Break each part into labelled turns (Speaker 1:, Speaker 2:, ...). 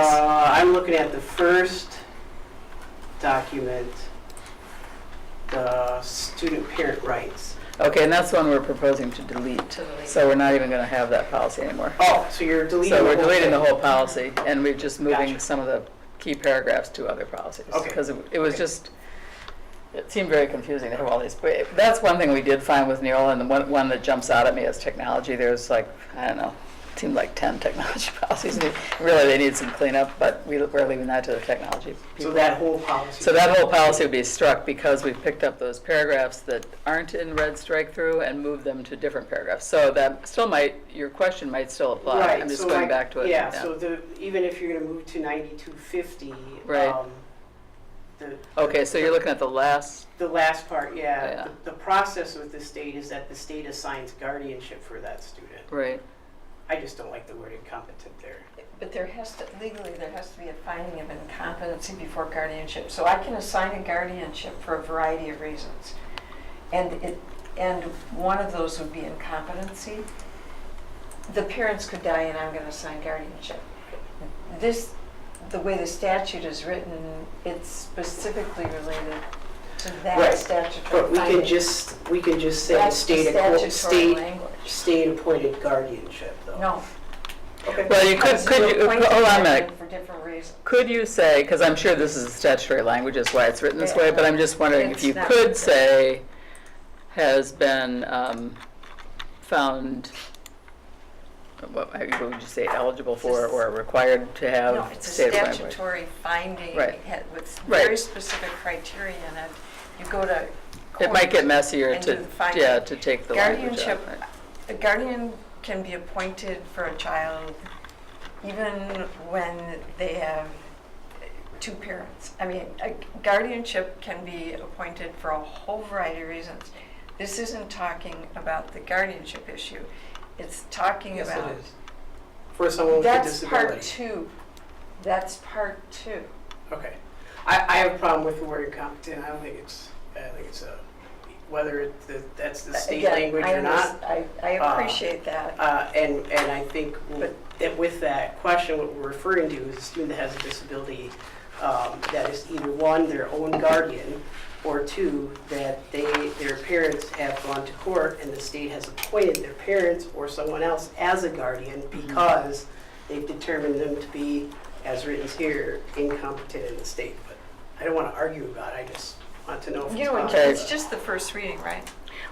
Speaker 1: Uh, looking at the first document, the student parent rights.
Speaker 2: Okay, and that's the one we're proposing to delete.
Speaker 3: to delete.
Speaker 2: So we're not even going to have that policy anymore.
Speaker 1: Oh, so you're deleting.
Speaker 2: So we're
Speaker 1: whole
Speaker 2: deleting the
Speaker 1: thing.
Speaker 2: whole policy and we're just moving
Speaker 1: Gotcha.
Speaker 2: some of the key paragraphs to other policies.
Speaker 1: Okay.
Speaker 2: Because it was
Speaker 1: Okay.
Speaker 2: just, it seemed very confusing to have all these. But that's one thing we did find with Neola and the one, one that jumps out at me is technology. There's like, I don't know, seemed like 10 technology policies. and Really, they need some cleanup, but we- we're leaving that to the technology
Speaker 1: So
Speaker 2: people.
Speaker 1: that whole policy.
Speaker 2: So that whole policy would be struck because we've picked up those paragraphs that aren't in red strike through and moved them to different paragraphs. So that still might, your question might still apply.
Speaker 1: Right,
Speaker 2: I'm just
Speaker 1: so
Speaker 2: going
Speaker 1: like-
Speaker 2: back to it.
Speaker 1: Yeah, so the, even if you're gonna move to ninety-two fifty. um,
Speaker 2: Right.
Speaker 1: The,
Speaker 2: Okay, so you're looking at the last,
Speaker 1: the last part, yeah.
Speaker 2: Yeah.
Speaker 1: The- The process with the state is that the state assigns guardianship for that student.
Speaker 2: right,
Speaker 1: I just don't like the word incompetent there.
Speaker 3: But there has to, legally, there has to be a finding of incompetency before guardianship. So I can assign a guardianship for a variety of reasons. And it, and one of those would be incompetency. The parents could die and I'm gonna assign guardianship. This, the way the statute is written, it's specifically related to
Speaker 1: Right.
Speaker 3: that statutory
Speaker 1: But we
Speaker 3: finding.
Speaker 1: can just, we can just say
Speaker 3: That's the
Speaker 1: state, acqu-
Speaker 3: statutory
Speaker 1: state,
Speaker 3: language.
Speaker 1: state-appointed guardianship, though.
Speaker 3: No.
Speaker 1: Okay.
Speaker 2: well, you could,
Speaker 3: because
Speaker 2: could
Speaker 3: you're
Speaker 2: you,
Speaker 3: appointing
Speaker 2: hold on a minute.
Speaker 3: guardian For different reasons.
Speaker 2: Could you say, because I'm sure this is statutory language, that's why it's written this way, but I'm just wondering if you
Speaker 3: It's not.
Speaker 2: could say has been um, found, what what would you say, eligible for or required to
Speaker 3: No,
Speaker 2: have
Speaker 3: it's a
Speaker 2: state language?
Speaker 3: statutory finding
Speaker 2: Right.
Speaker 3: ha- with
Speaker 2: Right.
Speaker 3: very specific criteria in it. You go to.
Speaker 2: It might get
Speaker 3: court.
Speaker 2: messier
Speaker 3: and
Speaker 2: to,
Speaker 3: do the finding.
Speaker 2: yeah, to take the language out.
Speaker 3: Guardianship,
Speaker 2: right.
Speaker 3: a guardian can be appointed for a child even when they have two parents. I mean, a guardianship can be appointed for a whole variety of reasons. This isn't talking about the guardianship issue. It's talking
Speaker 1: Yes,
Speaker 3: about.
Speaker 1: it is. For someone with a
Speaker 3: That's part
Speaker 1: disability.
Speaker 3: two. That's part two.
Speaker 1: Okay. I, I have a problem with the word incompetent. I don't think it's, I think it's a, whether it, that- that's the state
Speaker 3: Again,
Speaker 1: language
Speaker 3: Uh, I
Speaker 1: or not.
Speaker 3: underst- I, I
Speaker 1: uh,
Speaker 3: appreciate that.
Speaker 1: Uh, and, and I think w-
Speaker 3: But-
Speaker 1: that with that question, what we're referring to is a student that has a disability um, that is either one, their own guardian, or two, that they, their parents have gone to court and the state has appointed their parents or someone else as a guardian because they've determined them to be, as written here, incompetent in the state. But I don't want to argue about it, I just want to know if
Speaker 3: You
Speaker 1: it's
Speaker 3: know,
Speaker 1: possible.
Speaker 2: Okay.
Speaker 3: it's just the first reading, right?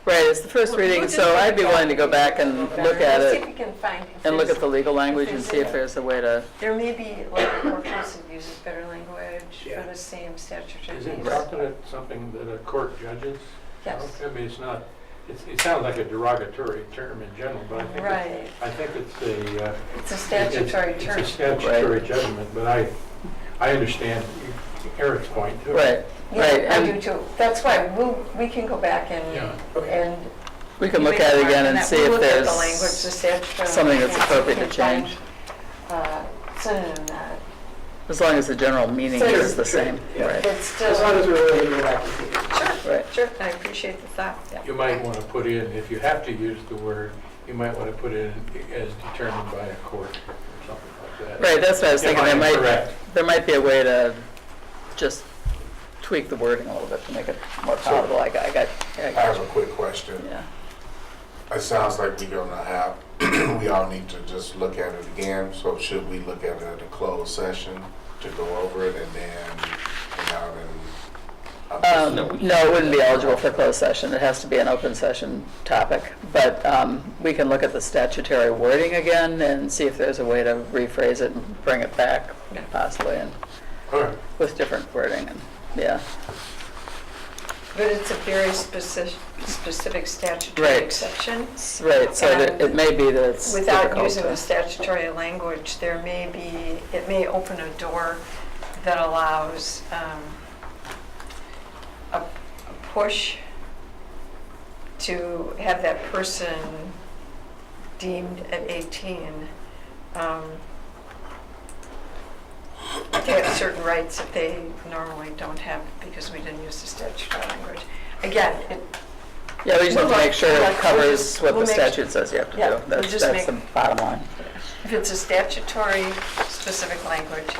Speaker 2: Right, it's the first
Speaker 3: Well, we'll
Speaker 2: reading,
Speaker 3: just
Speaker 2: so
Speaker 3: look
Speaker 2: I'd be
Speaker 3: at
Speaker 2: willing to
Speaker 3: it.
Speaker 2: go back and look at
Speaker 3: See if
Speaker 2: it
Speaker 3: we can find. if
Speaker 2: and look
Speaker 3: there's-
Speaker 2: at the legal language and
Speaker 3: there's
Speaker 2: see if
Speaker 3: a-
Speaker 2: there's a way to,
Speaker 3: There may be, like, the court process uses better language
Speaker 1: Yeah.
Speaker 3: for the same statutory
Speaker 4: Is it
Speaker 3: case.
Speaker 4: competent something that a court judges?
Speaker 3: Yes,
Speaker 4: I mean, it's not, it's, it sounds like a derogatory term in general, but I think, it's-
Speaker 3: right.
Speaker 4: I think it's a. uh,
Speaker 3: It's a
Speaker 4: it's-
Speaker 3: statutory term.
Speaker 4: It's a statutory judgment, but I, I understand Eric's point too.
Speaker 2: right, right.
Speaker 3: Yeah, I do
Speaker 2: And
Speaker 3: too. That's why we'll, we can go back
Speaker 4: Yeah.
Speaker 3: and,
Speaker 1: Okay.
Speaker 3: and.
Speaker 2: we can look at it again and see if
Speaker 3: We'll look at the language, the
Speaker 2: there's
Speaker 3: statutory.
Speaker 2: something that's
Speaker 3: language,
Speaker 2: appropriate
Speaker 3: we
Speaker 2: to
Speaker 3: can
Speaker 2: change.
Speaker 3: find, uh, Synonym that,
Speaker 2: As long as the general meaning
Speaker 3: Sure,
Speaker 2: is the
Speaker 1: sure,
Speaker 2: same,
Speaker 1: yeah.
Speaker 2: right,
Speaker 3: that's still.
Speaker 1: As long as we're willing to go back and take it.
Speaker 3: Sure,
Speaker 2: right.
Speaker 3: sure, I appreciate the thought, yeah.
Speaker 4: You might want to put in, if you have to use the word, you might want to put in as determined by a court or something like that.
Speaker 2: Right, that's what I was
Speaker 4: If
Speaker 2: thinking, there
Speaker 4: I'm
Speaker 2: might,
Speaker 4: Correct.
Speaker 2: there might be a way to just tweak the wording a little bit to make it more
Speaker 5: Sure.
Speaker 2: palatable, I got, I got, I
Speaker 5: I
Speaker 2: got
Speaker 5: have a quick question.
Speaker 2: yeah.
Speaker 5: It sounds like we're gonna have, we all need to just look at it again, so should we look at it at a closed session to go over it and then, and out
Speaker 2: Um,
Speaker 5: and. uh,
Speaker 2: No, it wouldn't be eligible for closed session. It has to be an open session topic. But um, we can look at the statutory wording again and see if there's a way to rephrase it and bring it back possibly and
Speaker 5: All right,
Speaker 2: with different wording and, yeah.
Speaker 3: But it's a very specific, specific statutory
Speaker 2: Right.
Speaker 3: exception.
Speaker 2: S- Right, so that it may be that it's
Speaker 3: Without
Speaker 2: difficult
Speaker 3: using
Speaker 2: to-
Speaker 3: the statutory language, there may be, it may open a door that allows um, a a push to have that person deemed at 18 um, to have certain rights that they normally don't have because we didn't use the statutory language. Again, it
Speaker 2: Yeah, we just have to
Speaker 3: We'll
Speaker 2: make sure
Speaker 3: look-
Speaker 2: it
Speaker 3: we'll
Speaker 2: covers
Speaker 3: just-
Speaker 2: what
Speaker 3: we'll
Speaker 2: the
Speaker 3: make-
Speaker 2: statute says you have to
Speaker 3: Yeah,
Speaker 2: do.
Speaker 3: we'll
Speaker 2: That's,
Speaker 3: just
Speaker 2: that's the
Speaker 3: make-
Speaker 2: bottom line.
Speaker 3: If it's a statutory specific language,